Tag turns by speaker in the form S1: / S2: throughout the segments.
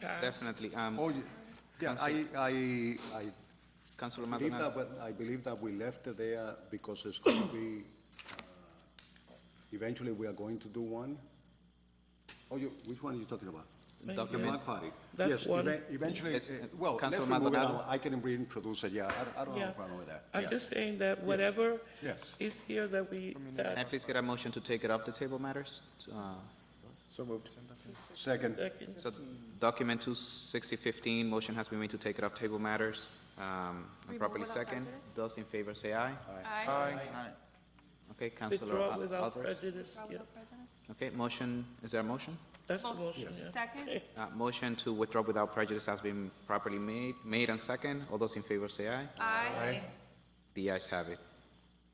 S1: past?
S2: Definitely. Um,
S3: Oh, ye- yeah, I, I, I
S2: Councilor
S3: believe
S2: Maldonado.
S3: that, what- I believe that we left it there because it's going to be, uh, eventually we are going to do one. Oh, you, which one are you talking about?
S1: Maybe
S3: The
S2: Document.
S3: block party?
S1: That's
S3: Yes,
S1: one.
S3: even- Eventually,
S2: Yes,
S3: uh,
S2: uh,
S3: well, let's
S2: Councilor
S3: remove it,
S2: Maldonado?
S3: I'll- I can reintroduce it, yeah, I- I don't have
S1: Yeah.
S3: a problem with that.
S1: I'm
S3: yeah.
S1: just saying that whatever
S3: Yes.
S1: is here that we,
S2: Can I
S1: that,
S2: please get a motion to take it off the table matters? Uh,
S4: So moved.
S3: Second,
S1: second,
S2: So document 26015, motion has been made to take it off table matters. Um, and Properly
S5: Removal without
S2: second.
S5: prejudice?
S2: Those in favor say aye.
S5: Aye.
S2: Okay, Councilor
S1: withdraw
S2: Al-
S1: without
S2: Alvarez.
S1: prejudice, yeah,
S2: Okay, motion, is there a motion?
S1: that's the motion, yeah.
S5: Second?
S2: Uh, Motion to withdraw without prejudice has been properly made, made and second. All those in favor say aye.
S5: Aye.
S2: The ayes have it.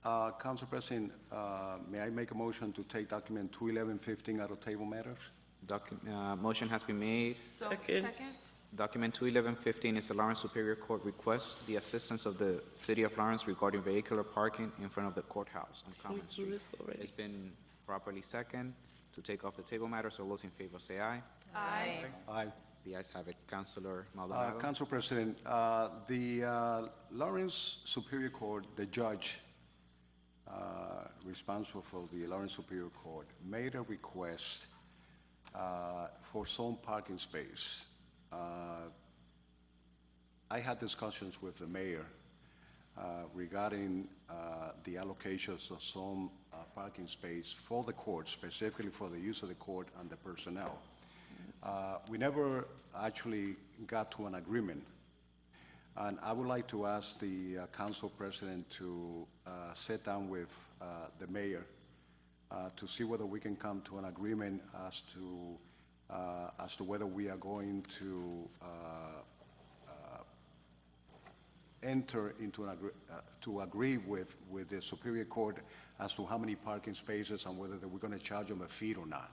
S3: uh, Council President, uh, may I make a motion to take document two eleven fifteen out of table matters?
S2: Docu- uh, Motion has been made.
S5: So,
S1: Second.
S5: second?
S2: Document 21115 is the Lawrence Superior Court requests the assistance of the City of Lawrence regarding vehicular parking in front of the courthouse on
S1: We
S2: Common
S1: do
S2: Street.
S1: this already.
S2: It's been properly second to take off the table matters. All those in favor say aye.
S5: Aye.
S3: Aye.
S2: The ayes have it. Counselor
S3: Uh,
S2: Maldonado.
S3: Council President, uh, the uh, Lawrence Superior Court, the judge uh, responsible for the Lawrence Superior Court, made a request uh, for some parking space. Uh, I had discussions with the mayor uh, regarding uh, the allocations of some uh, parking space for the court, specifically for the use of the court and the personnel. Uh, We never actually got to an agreement. And I would like to ask the uh, council president to uh, sit down with uh, the mayor uh, to see whether we can come to an agreement as to, uh, as to whether we are going to uh, enter into an agree, uh, to agree with, with the Superior Court as to how many parking spaces and whether that we're gonna charge them a fee or not.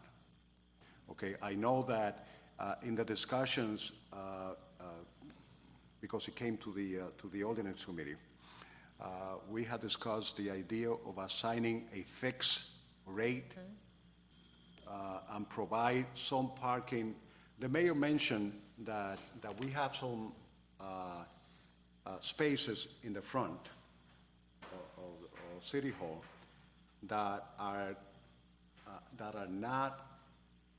S3: Okay, I know that, uh, in the discussions, uh, uh, because it came to the, uh, to the ordinance committee, uh, we had discussed the idea of assigning a fixed rate uh, and provide some parking. The mayor mentioned that, that we have some uh, uh, spaces in the front of, of- of City Hall that are, uh, that are not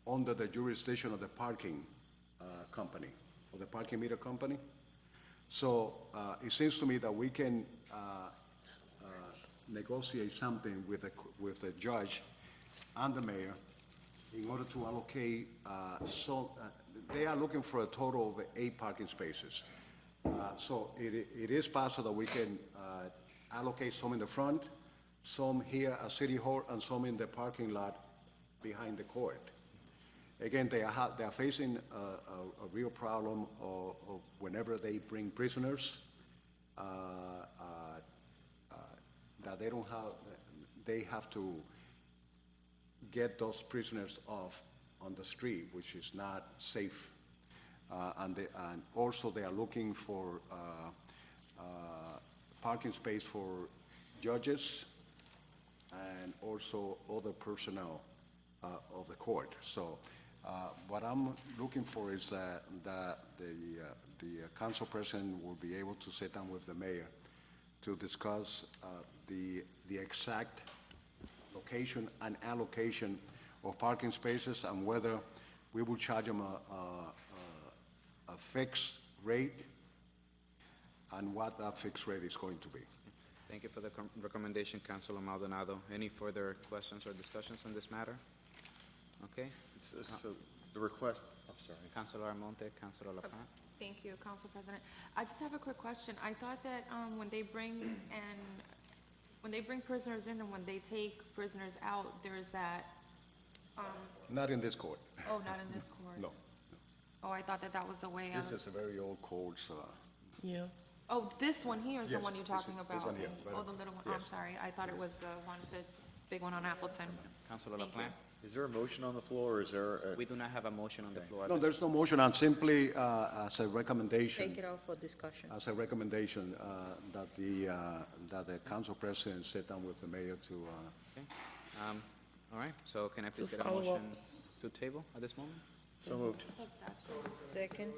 S3: under the jurisdiction of the parking uh, company, of the parking meter company. So uh, it seems to me that we can uh, uh, negotiate something with the, with the judge and the mayor in order to allocate, uh, so, uh, they are looking for a total of eight parking spaces. Uh, So it, i- it is possible that we can uh, allocate some in the front, some here at City Hall, and some in the parking lot behind the court. Again, they are, ha- they are facing a, a, a real problem of, of whenever they bring prisoners, uh, uh, uh, that they don't have, they have to get those prisoners off on the street, which is not safe. Uh, and they, and also they are looking for, uh, uh, parking space for judges, and also other personnel uh, of the court. So uh, what I'm looking for is that, that the, uh, the council president will be able to sit down with the mayor to discuss uh, the, the exact location and allocation of parking spaces and whether we will charge them a, a- a, a fixed rate and what that fixed rate is going to be.
S2: Thank you for the com- recommendation, Councilor Maldonado. Any further questions or discussions on this matter? Okay.
S4: So- So the request, I'm sorry.
S2: Councilor Almonte, Councilor LaPlante.
S5: Thank you, Council President. I just have a quick question. I thought that, um, when they bring and, when they bring prisoners in and when they take prisoners out, there is that, um,
S3: Not in this court,
S5: oh, not in this court?
S3: no.
S5: Oh, I thought that that was a way
S3: This
S5: of,
S3: is a very old code, so.
S1: Yeah,
S5: oh, this one here is the
S3: Yes,
S5: one you're
S3: this is-
S5: talking
S3: this
S5: about?
S3: one here, right
S5: Oh,
S3: up.
S5: the little one, I'm
S3: Yes.
S5: sorry. I thought it was the one, the big one on Appleton.
S2: Councilor
S5: Thank you.
S2: LaPlante.
S4: Is there a motion on the floor, or is there a?
S2: We do not have a motion on the floor. at
S3: No,
S2: this
S3: there's no motion, and simply uh, as a recommendation,
S6: Take it out for discussion.
S3: as a recommendation uh, that the, uh, that the council president sit down with the mayor to, uh,
S2: Okay. Um, All right, so can I please get a
S1: follow up.
S2: motion to table at this moment?
S7: So moved.
S8: That's-
S4: Second.